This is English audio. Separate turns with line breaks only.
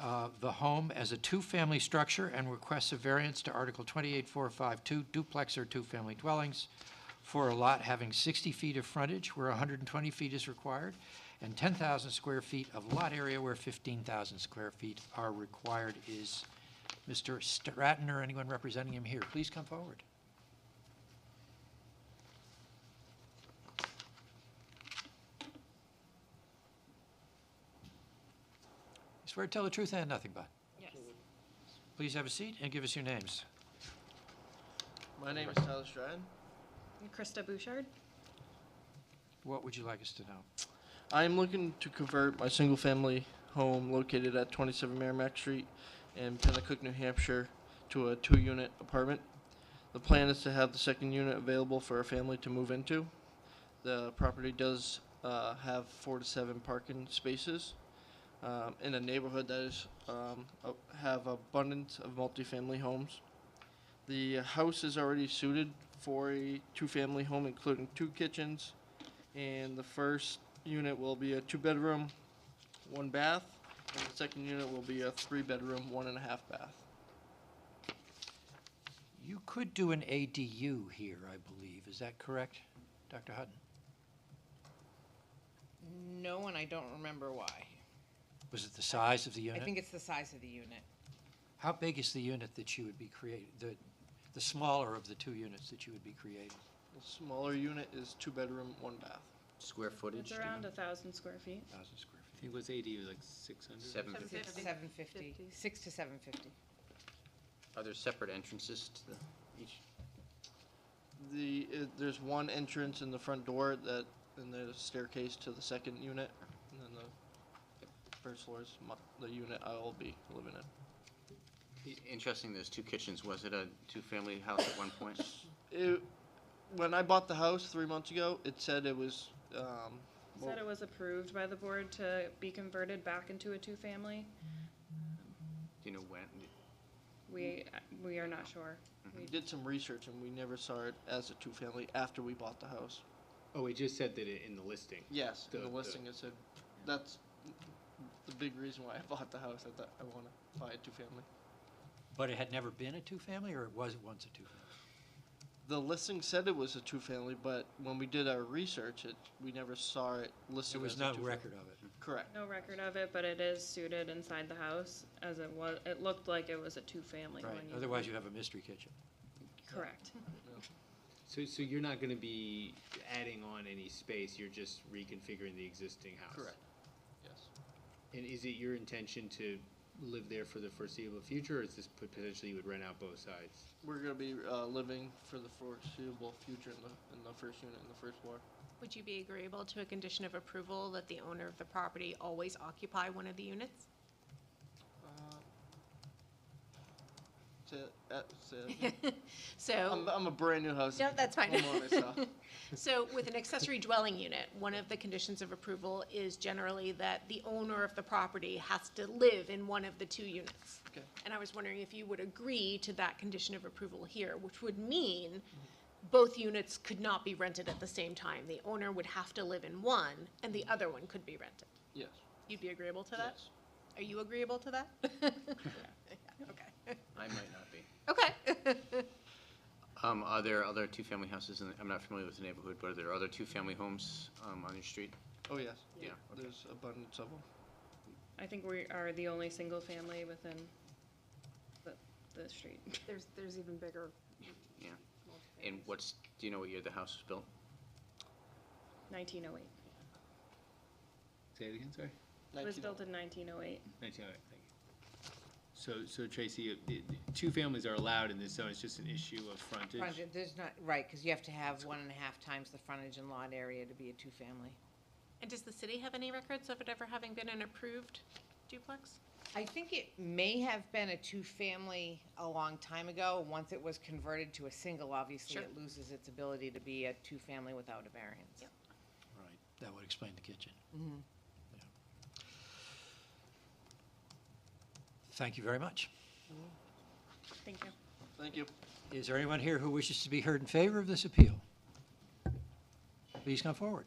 uh, the home as a two-family structure and requests a variance to Article 28452, duplex or two-family dwellings, for a lot having 60 feet of frontage where 120 feet is required, and 10,000 square feet of lot area where 15,000 square feet are required. Is Mr. Stratton or anyone representing him here? Please come forward. You Swear to tell the truth and nothing but.
Yes.
Please have a seat and give us your names.
My name is Tyler Stratton.
Krista Bouchard?
What would you like us to know?
I am looking to convert my single family home located at 27 Merrimack Street in Pennacook, New Hampshire to a two unit apartment. The plan is to have the second unit available for a family to move into. The property does uh, have four to seven parking spaces um, in a neighborhood that is um, a- have abundance of multifamily homes. The house is already suited for a two family home, including two kitchens, and the first unit will be a two-bedroom, one bath, and the second unit will be a three-bedroom, one and a half bath.
You could do an ADU here, I believe. Is that correct, Dr. Hutton?
No, and I don't remember why.
Was it the size of the
I
unit?
think it's the size of the unit.
How big is the unit that you would be creating, the, the smaller of the two units that you would be creating?
The smaller unit is two-bedroom, one bath.
Square footage?
It's around a thousand square feet.
1,000 square feet.
I think was ADU like six hundred?
Seven,
Seven
Six to
fifty.
seven fifty,
Fifty.
six to seven fifty.
are there separate entrances to the, each?
The, uh, there's one entrance in the front door that, and there's a staircase to the second unit, and then the first floor is my, the unit I will be living in.
e, Interesting, there's two kitchens. Was it a two-family house at one point?
It, when I bought the house three months ago, it said it was, um,
Said it was approved by the board to be converted back into a two-family.
Do you know when?
We, we are not sure.
we did some research and we never saw it as a two-family after we bought the house.
Oh, it just said that it in the listing.
Yes, in
The-
the
the-
listing it said, that's the big reason why I bought the house, I thought I wanna buy a two-family.
But it had never been a two-family, or it was once a two-family?
The listing said it was a two-family, but when we did our research, it, we never saw it listed
There
as
was
a
no
two-family.
record of it.
Correct,
No record of it, but it is suited inside the house as it was, it looked like it was a two-family when
Right,
you.
otherwise you have a mystery kitchen.
Correct.
So, so you're not gonna be adding on any space, you're just reconfiguring the existing house?
correct, yes.
And is it your intention to live there for the foreseeable future, or is this pot- potentially you would rent out both sides?
We're gonna be, uh, living for the foreseeable future in the, in the first unit, in the first floor.
Would you be agreeable to a condition of approval that the owner of the property always occupy one of the units?
Uh, Say, uh, say, I'm,
So,
I'm a brand-new house.
No, that's fine.
homeowner, so-
so with an accessory dwelling unit, one of the conditions of approval is generally that the owner of the property has to live in one of the two units.
Okay.
And I was wondering if you would agree to that condition of approval here, which would mean both units could not be rented at the same time. The owner would have to live in one, and the other one could be rented.
Yes,
You'd be agreeable to that?
yes.
Are you agreeable to that? Yeah, Okay.
I might not be.
Okay.
Um, are there other two-family houses in, the- I'm not familiar with the neighborhood, but are there other two-family homes, um, on your street?
Oh, yes.
Yeah, okay.
There's abundance of them.
I think we are the only single-family within the, the street.
There's, there's even bigger.
Yeah. And what's, do you know what year the house was built?
Nineteen oh eight.
Say it again, sorry?
It was
19
built in nineteen oh eight.
Nineteen, all right, thank you. So, so Tracy, uh, the- the two families are allowed in this zone, it's just an issue of frontage?
Frontage, there's not, right, because you have to have one and a half times the frontage and lot area to be a two-family.
And does the city have any records of it ever having been an approved duplex?
I think it may have been a two-family a long time ago. Once it was converted to a single, obviously,
Sure.
it loses its ability to be a two-family without a variance.
Yep.
Right, that would explain the kitchen. Yeah. Thank you very much.
Thank you.
Thank you.
Is there anyone here who wishes to be heard in favor of this appeal? Please come forward.